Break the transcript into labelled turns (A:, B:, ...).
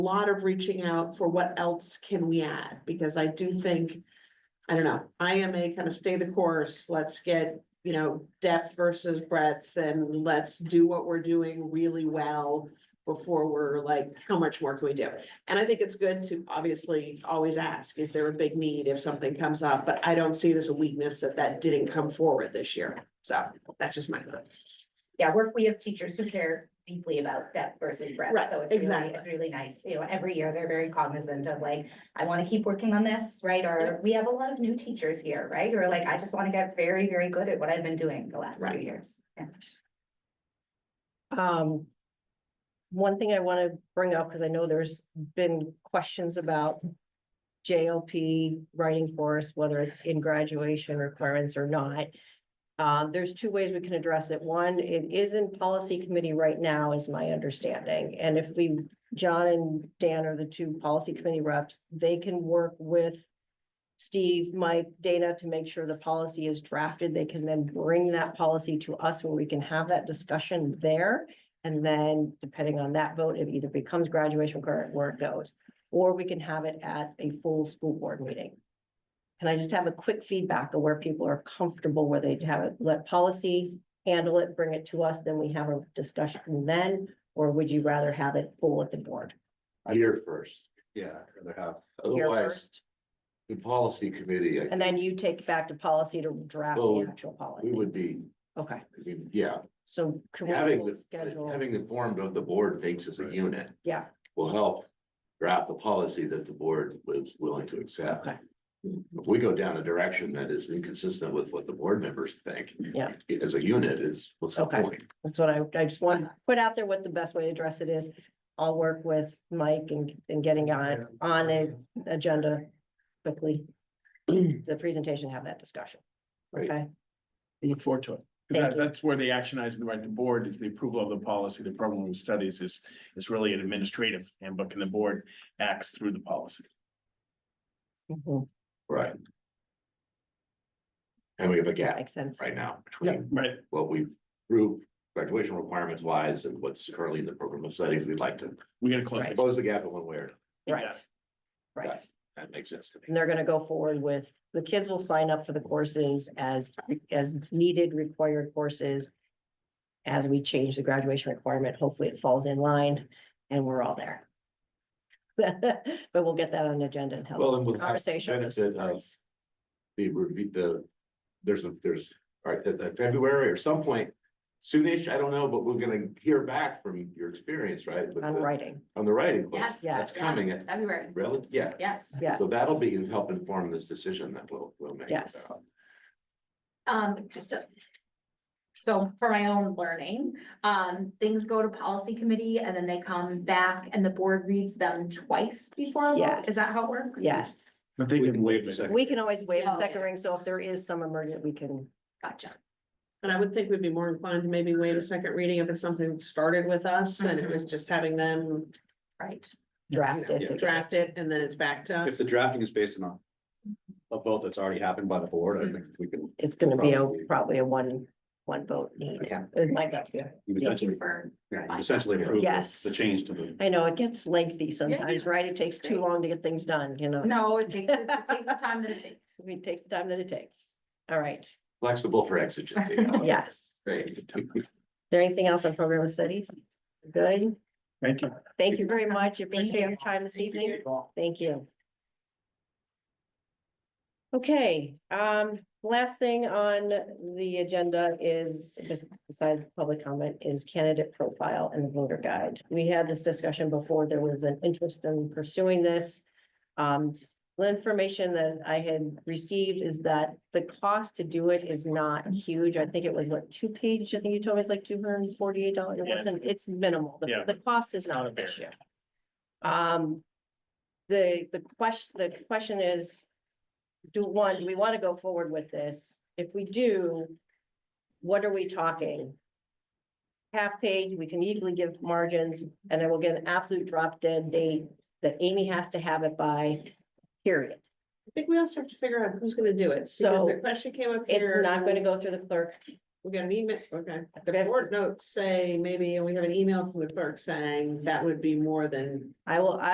A: lot of reaching out for what else can we add, because I do think. I don't know, IMA kind of stay the course, let's get, you know, depth versus breadth and let's do what we're doing really well. Before we're like, how much more can we do? And I think it's good to obviously always ask, is there a big need if something comes up? But I don't see it as a weakness that that didn't come forward this year. So that's just my thought.
B: Yeah, work, we have teachers who care deeply about depth versus
A: Right,
B: breadth, so it's really,
A: exactly.
B: it's really nice, you know, every year, they're very cognizant of like, I wanna keep working on this, right, or we have a lot of new teachers here, right, or like, I just wanna get very, very good at what I've been doing the last few
A: Right.
B: years. Yeah.
C: Um, one thing I want to bring up, because I know there's been questions about JLP writing for us, whether it's in graduation requirements or not. Uh, there's two ways we can address it. One, it is in policy committee right now, is my understanding. And if we, John and Dan are the two policy committee reps, they can work with Steve, Mike, Dana to make sure the policy is drafted. They can then bring that policy to us where we can have that discussion there. And then depending on that vote, it either becomes graduation requirement where it goes, or we can have it at a full school board meeting. Can I just have a quick feedback of where people are comfortable, where they have it, let policy handle it, bring it to us, then we have a discussion then? Or would you rather have it full at the board?
D: Here first, yeah, I'd rather have,
C: Here
D: otherwise,
C: first,
D: the policy committee, I-
C: And then you take it back to policy to draft the
D: Well,
C: actual policy.
D: we would be,
C: Okay,
D: I mean, yeah,
C: so can we
D: having
C: we'll
D: the,
C: schedule,
D: having the form of the board thinks as a
E: Right.
D: unit.
C: Yeah.
D: Will help draft the policy that the board was willing to accept.
C: Okay.
D: If we go down a direction that is inconsistent with what the board members think.
C: Yeah.
D: As a unit is, what's the
C: Okay.
D: point?
C: that's what I, I just want to put out there what the best way to address it is. I'll work with Mike and, and getting on, it on an agenda quickly. The presentation, have that discussion.
D: Right.
C: Okay,
E: I look forward to it. 'Cause
C: Thank
E: that-
C: you.
E: that's where the action is in the right, the board is the approval of the policy, the program of studies is, is really an administrative handbook and the board acts through the policy.
C: Mhm,
D: Right. And we have a gap
C: makes sense.
D: right now between
E: Right,
D: what we've proved graduation requirements wise and what's currently in the program of studies. We'd like to
E: we gotta close.
C: Right.
E: it.
D: close the gap in one way or another.
E: Yeah.
C: Right. Right,
D: That makes sense to me.
C: and they're gonna go forward with, the kids will sign up for the courses as, as needed required courses. As we change the graduation requirement, hopefully it falls in line and we're all there. But we'll get that on the agenda and have
D: Well, and we'll
C: a
D: have the
C: conversation. with
D: benefit of-
C: parents.
D: The, review- the, there's a, there's, all right, that- that February or some point, soonish, I don't know, but we're gonna hear back from your experience, right? with
C: On
D: the-
C: writing,
D: On the writing. course.
B: Yes,
D: That's
B: yeah,
D: coming at,
B: Everywhere,
D: relative, yeah.
B: yes.
C: yeah,
D: So that'll be, help inform this decision that we'll, we'll make. Uh,
C: Yes.
B: Um, just so. So for my own learning, um, things go to policy committee and then they come back and the board reads them twice before a vote, is that how it works?
C: yes,
E: But they can waive the second.
C: we can always waive the
B: Oh.
C: second ring, so if there is some emergent, we can,
B: Gotcha.
A: And I would think we'd be more inclined to maybe wait a second reading if it's something that started with us and it was just having them
B: Right.
C: Mhm. draft it.
A: you know,
C: to-
A: draft it and then it's back to
F: If
A: us.
F: the drafting is based on a, a vote that's already happened by the board, I think we can,
C: It's gonna be a,
F: Probably.
C: probably a one, one vote, yeah,
F: Yeah.
C: it might not be.
F: you
B: Thank you
F: essentially,
B: for,
F: yeah, you essentially approve
C: Yes.
F: the- the change to the.
C: I know, it gets lengthy sometimes,
B: yeah,
C: right? It takes too
B: great.
C: long to get things done, you know?
B: no, it takes, it takes the time that it takes.
C: It takes the time that it takes. All right,
D: Flexible for exigency.
B: Oh,
C: yes. Is
D: Great.
C: there anything else on program of studies? Good.
E: Thank you.
C: Thank you very much.
B: Thank
C: Appreciate your
B: you.
C: time this evening. Thank you. Okay, um, last thing on the agenda is, just besides public comment, is candidate profile and the voter guide. We had this discussion before, there was an interest in pursuing this. Um, the information that I had received is that the cost to do it is not huge. I think it was what, two page? I think you told me it's like two hundred and forty-eight dollars. It
E: Yeah, it's-
C: wasn't, it's minimal. The,
E: Yeah.
C: the cost is not an issue. Um, the, the question, the question is, do one, do we want to go forward with this? If we do, what are we talking? Half page, we can easily give margins, and I will get an absolute drop dead date that Amy has to have it by, period.
A: I think we also have to figure out who's gonna do it. Because
C: So,
A: the question came up
C: It's
A: here.
C: not going to go through the clerk.
A: We got an email, okay. The
C: Okay.
A: board notes say maybe, and we have an email from the clerk saying that would be more than
C: I will,